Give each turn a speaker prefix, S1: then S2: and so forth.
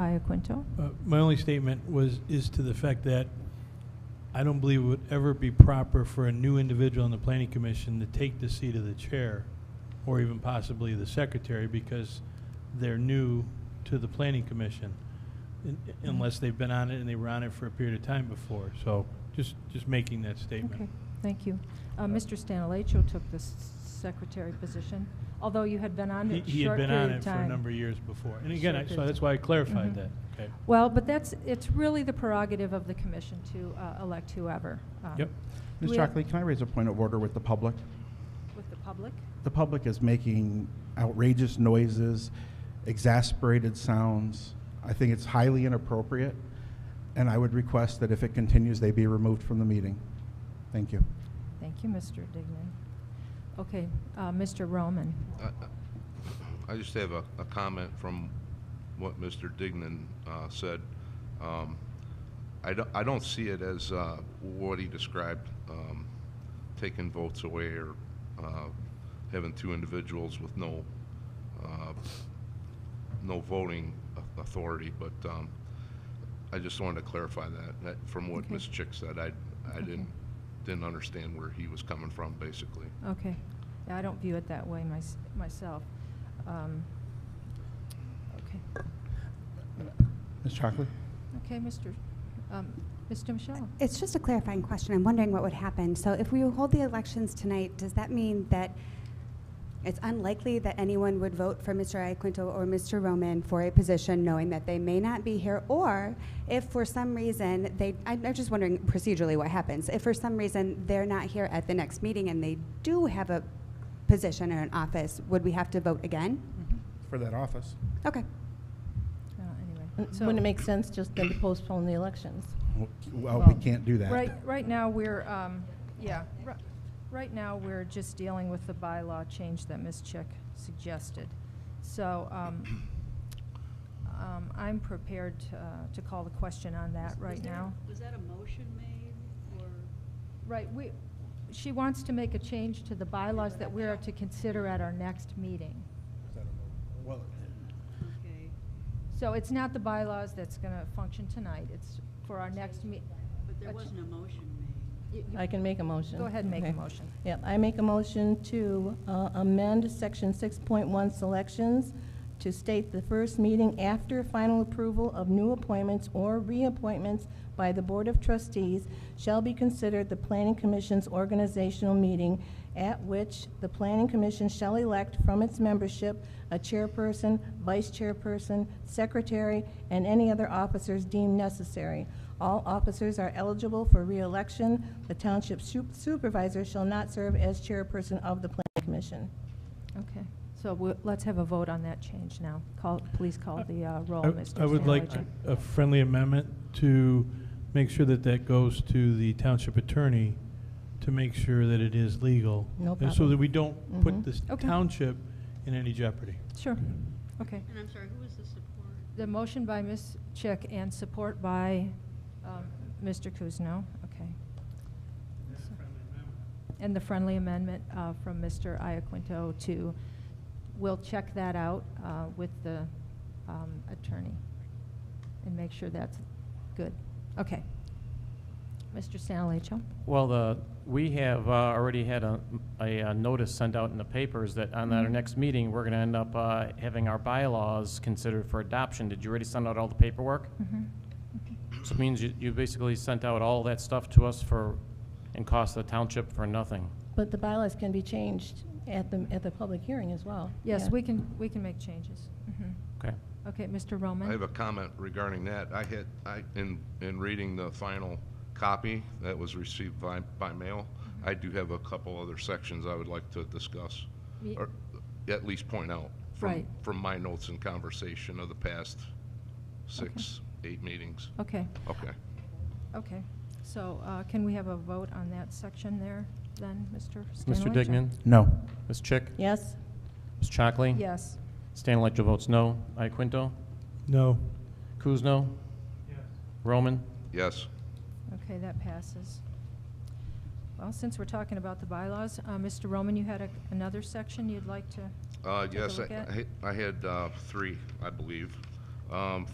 S1: Iaquinto?
S2: Uh, My only statement was, is to the fact that I don't believe it would ever be proper for a new individual on the planning commission to take the seat of the chair or even possibly the secretary because they're new to the planning commission un-
S1: Mm-hmm.
S2: unless they've been on it and they were on it for a period of time before. So just, just making that statement.
S1: Okay, thank you. Uh, Mr. Stanilecho took the s- secretary position, although you had been on
S2: He-
S1: it
S2: He had
S1: short
S2: been on
S1: period
S2: it
S1: of
S2: for a
S1: time.
S2: number of years before. And
S1: Short
S2: again, I-
S1: period Mm-hmm.
S2: so
S1: of
S2: that's
S1: time.
S2: why I
S1: Mhm.
S2: clarified that. Okay.
S1: Well, but that's, it's really the prerogative of the commission to uh, elect whoever. um,
S2: Yep.
S1: Do
S3: Ms.
S1: we have-
S3: Shockley, can I raise a point of order with the public?
S1: With the public.
S3: The public is making outrageous noises, exasperated sounds. I think it's highly inappropriate, and I would request that if it continues, they be removed from the meeting. Thank you.
S1: Thank you, Mr. Dignan. Okay, uh, Mr. Roman.
S4: I- I- I just have a, a comment from what Mr. Dignan uh, said. Um, I don't, I don't see it as uh, what he described, um, taking votes away or uh, having two individuals with no, uh, no voting au- authority, but um, I just wanted to clarify that, that from what
S1: Okay.
S4: Ms. Chick said, I, I
S1: Okay.
S4: didn't, didn't understand where he was coming from, basically.
S1: Okay. Yeah, I don't view it that way mys- myself. Um, Okay.
S3: Ms. Shockley?
S1: Okay, Mr., um, Mr. Michelle.
S5: It's just a clarifying question. I'm wondering what would happen. So if we hold the elections tonight, does that mean that it's unlikely that anyone would vote for Mr. Iaquinto or Mr. Roman for a position knowing that they may not be here? Or if for some reason they, I'm I'm just wondering procedurally what happens. If for some reason they're not here at the next meeting and they do have a position or an office, would we have to vote again?
S3: For that office.
S5: Okay.
S1: Uh,
S6: Uh,
S1: Anyway. so-
S6: Wouldn't it make sense just then to postpone the elections?
S3: Well, we can't do that.
S1: Right, right now, we're, um, yeah, ri- right now, we're just dealing with the bylaw change that Ms. Chick suggested. So um, um, I'm prepared to, uh, to call the question on that
S7: Was- was
S1: right
S7: there-
S1: now.
S7: Was that a motion made, or?
S1: Right, we, she wants to make a change to the bylaws that we are to consider at our next meeting.
S3: Well,
S7: Okay.
S1: So it's not the bylaws that's going to function tonight, it's for our next meeting.
S7: But there wasn't a motion made.
S6: I can make a motion.
S1: Go ahead and make a
S6: Okay.
S1: motion.
S6: Yeah, I make a motion to uh, amend Section 6.1 Selections to state the first meeting after final approval of new appointments or reappointments by the Board of Trustees shall be considered the Planning Commission's organizational meeting at which the Planning Commission shall elect from its membership a chairperson, vice chairperson, secretary, and any other officers deemed necessary. All officers are eligible for reelection. The township su- supervisor shall not serve as chairperson of the planning commission.
S1: Okay, so we'll- let's have a vote on that change now. Call, please call the uh, roll,
S2: I-
S1: Mr.
S2: I would like uh,
S1: Stanley.
S2: a friendly amendment to make sure that that goes to the township attorney to make sure that it is legal.
S6: No
S2: And so
S6: problem.
S2: that we don't put
S6: Mhm.
S2: this
S1: Okay.
S2: township in any jeopardy.
S1: Sure, okay.
S7: And I'm sorry, who was the support?
S1: The motion by Ms. Chick and support by um, Mr. Kuzno, okay. And the friendly amendment uh, from Mr. Iaquinto to, we'll check that out uh, with the um, attorney and make sure that's good. Okay. Mr. Stanalacho?
S8: Well, the, we have uh, already had a, a uh, notice sent out in the papers that on our
S1: Mhm.
S8: next meeting, we're gonna end up uh, having our bylaws considered for adoption. Did you already send out all the paperwork?
S1: Mhm.
S8: So it means you, you basically sent out all that stuff to us for, and cost the township for nothing.
S6: But the bylaws can be changed at the, at the public hearing as well.
S1: Yes,
S6: Yeah.
S1: we can, we can make changes. Mhm.
S8: Okay?
S1: Okay, Mr. Roman?
S4: I have a comment regarding that. I had, I, in, in reading the final copy that was received by, by mail,
S1: Mm-hmm.
S4: I do have a couple other sections I would like to discuss,
S1: Ye-
S4: or at least point out from,
S1: Right.
S4: from my notes and conversation of the past six, eight meetings.
S1: Okay, Oh.
S4: Okay.
S1: okay. So uh, can we have a vote on that section there, then, Mr.
S8: Mr.
S1: Stanalacho?
S8: Dignan,
S3: No.
S8: Ms. Chick,
S6: Yes?
S8: Ms. Chockley?
S1: Yes.
S8: Stan Electro votes no. Iaquinto?
S2: No.
S8: Kuzno? Roman?
S4: Yes.
S1: Okay, that passes. Well, since we're talking about the bylaws, uh, Mr. Roman, you had a- another section you'd like to?
S4: Uh,
S1: Take a
S4: yes,
S1: look at?
S4: I, I had, uh, three, I believe. Um,